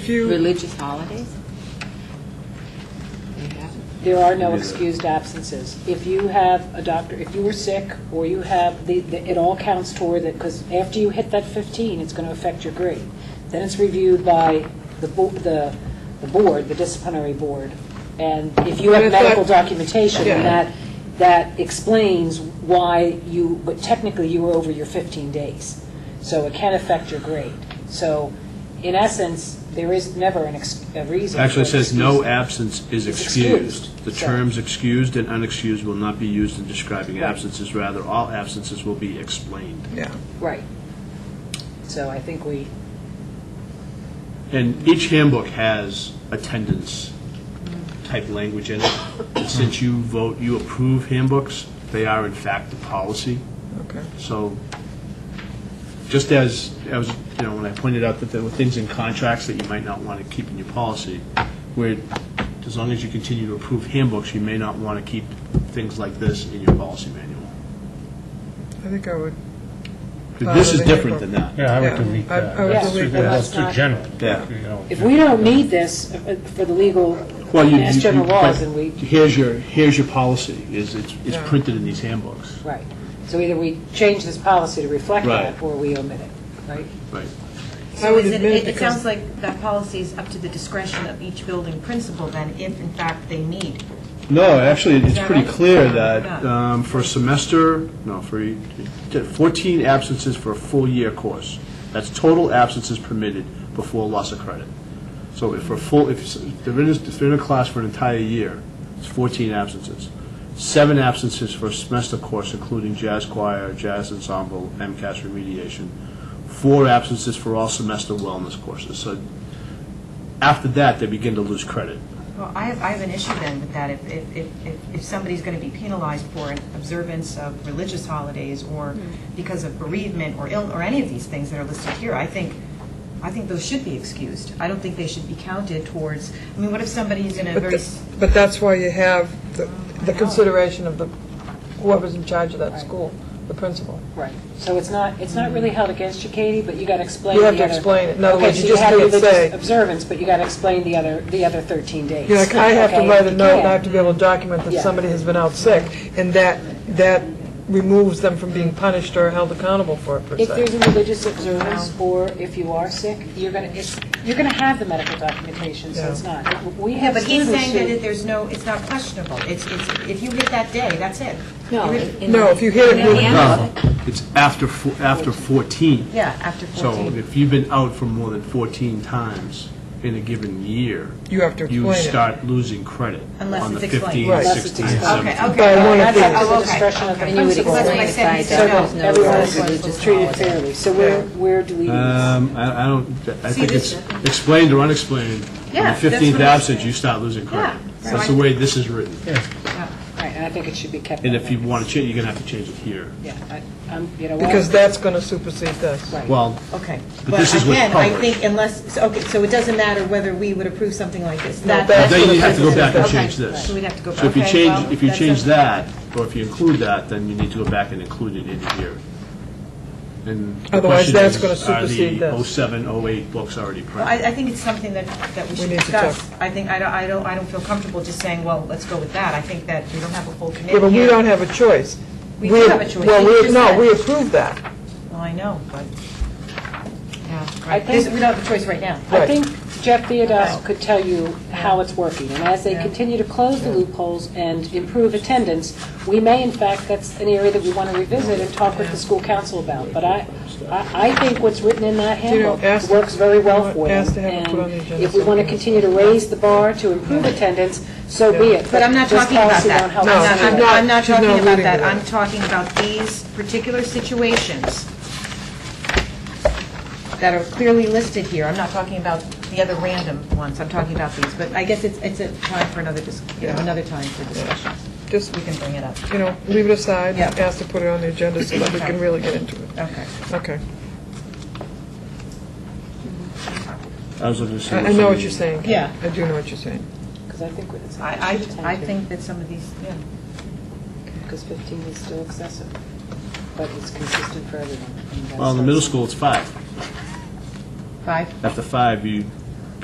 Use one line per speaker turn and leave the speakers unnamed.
Few,
Religious holidays? They haven't.
There are no
Yeah.
excused absences. If you have a doctor, if you were sick, or you have, the the- it all counts toward it, because after you hit that 15, it's going to affect your grade. Then it's reviewed by the bo- the the board, the disciplinary board, and if you
But I
have
thought-
medical documentation,
Yeah.
then that, that explains why you, but technically you were over your 15 days. So it can affect your grade. So in essence, there is never an ex- a reason.
Actually, it
for an
says no
excuse.
absence is
It's excused,
excused. The
so-
terms excused and unexcused will not be used in describing
Right.
absences, rather, all absences will be explained.
yeah.
Right. So I think we,
And each handbook has attendance type language in it. And Since you vote, you approve handbooks, they are in fact the policy.
Okay.
So, just as, I was, you know, when I pointed out that there were things in contracts that you might not want to keep in your policy, where, as long as you continue to approve handbooks, you may not want to keep things like this in your policy manual.
I think I would,
'Cause This is different than that.
Yeah,
Yeah,
I would delete
I-
that.
I would
That's
delete
too-
that.
That's
Let's
too
not-
general.
Yeah.
You know,
if we don't need this uh, for the legal,
Well, you-
mass
you-
general
you-
laws,
but
and we,
Here's your, here's your policy, is, it's it's
Yeah.
printed in these handbooks.
right. So either we change this policy to reflect that,
Right.
or we omit it, right?
Right.
I
So
would
is it,
admit it
it it sounds
because,
like that policy is up to the discretion of each building principal then, if in fact they need.
No, actually, it's
that
pretty
right?
clear
Yeah,
that
yeah.
um, for a semester, no, for e- 14 absences for a full-year course. That's total absences permitted before loss of credit. So if for a full, if s- they're in, a- if they're in a class for an entire year, it's 14 absences. Seven absences for a semester course, including jazz choir, jazz ensemble, MCAS remediation. Four absences for all semester wellness courses. So after that, they begin to lose credit.
Well, I have, I have an issue then with that, if, if, if- if, if somebody's going to be penalized for an observance of religious holidays or because of bereavement or ill, or any of these things that are listed here, I think, I think those should be excused. I don't think they should be counted towards, I mean, what if somebody's in a
but
very,
tha-
s-
but that's why you have the the consideration of the, whoever's in charge of that school, the principal.
Right. So it's not, it's not really held against you, Katie, but you got to explain
You
the
have
other...
to explain it. In other
Okay,
words,
so
you just
have
leave it
religious
vague.
observance, but you got to explain the other, the other 13 days.
You know, like, I have to
Okay,
write a
if you
note, and
can.
I have to be able to document
Yeah.
that somebody has been out sick, and that, that removes them from being punished or held accountable for it, per
If there's
se.
a religious observance, or if you are sick, you're going to, you're going to have the medical documentation, so it's not. We
yeah,
have
but he's
students
saying that
who-
it- there's no, it's not questionable. It's, it's, if you hit that day, that's it.
No.
You
in-
hit-
in
No,
the-
if you hit it,
in the
you- No.
handbook.
Uh, It's after, fo- after 14.
Yeah, after 14.
So if you've been out for more than 14 times in a given year,
You have to
you
explain it.
start losing credit
Unless
on the
it's explained.
15,
Right.
Unless it's
16,
explained.
17.
Okay, okay.
By one
That's
offense.
up to
Oh,
the
okay.
discretion of the
Okay.
And you would
So that's why I
explain if
said
I
he
So
said no.
don't
that
know
everyone
about
is
religious
treated
holidays.
fairly. So where, where do we leave this?
Um, I I don't, I
See,
think it's
this-
explained or unexplained.
Yeah,
On
that's
the 15th
what I'm
absence,
saying.
you start losing credit.
Yeah,
That's
so
the
I-
way this is written.
Right, and I think it should be kept.
And
that
if you
way.
want to change, you're going to have to change it here.
Yeah, I- I'm, you know what?
Because that's going to supersede this.
Right.
Well,
Okay.
But this is with
again, I
public.
think unless, so- okay, so it doesn't matter whether we would approve something like this. That-
that's
that's
then
what
you have to go
it
back and
is. Okay,
change this.
So we'd have to go back.
So if you
Okay,
change,
well,
if you
that's
change
a-
that, or if you include that, then you need to go back and include it in here. And the
Otherwise,
question
that's
is,
gonna supersede
Are
this.
the 07, 08 books already
Well, I,
printed?
I think it's something that, that we should
need to
discuss. I think, I don't, I don't, I don't feel comfortable just saying, well, let's go with that. I think that we don't have a full committee
Yeah, but we
here.
don't have a choice.
We do have a choice.
Well,
You
we,
just
no,
said-
we approve that.
Well, I know, but, yeah,
I
right. This-
think-
We don't have a choice right now.
I
Right.
think Jeff Theodos could tell you how it's working, and as they
Yeah.
continue to close the loopholes and improve attendance, we may, in fact, that's an area that we want to revisit and talk with the school council about, but I, I I think what's written in that
you know,
handbook
ask-
works very well for them.
ask to have it put on the
And
agenda
if we want to
sometime.
continue to raise the bar to improve attendance, so be it.
But I'm not
just
talking about
policy
that.
don't help
No,
us
I'm
do
I'm
that.
not, I'm not
she's not
talking about
reading
that.
it.
I'm talking about these particular situations that are clearly listed here. I'm not talking about the other random ones. I'm talking about these. But I guess it's, it's a time for another, dis- you know, another time for discussion.
Just,
We can bring it up.
you know, leave it aside,
Yeah.
ask to put it on the agenda so that we can really get into it.
Okay.
Okay.
I was looking to see.
I I know what you're saying. Kate.
Yeah.
I do know what you're saying.
'Cause I think it's-
I,
should tend
I, I
to.
think that some of these, yeah.
because 15 is still excessive, but it's consistent for everyone. and that's
Well, in the
not
middle
something-
school, it's five.
Five?
After five, you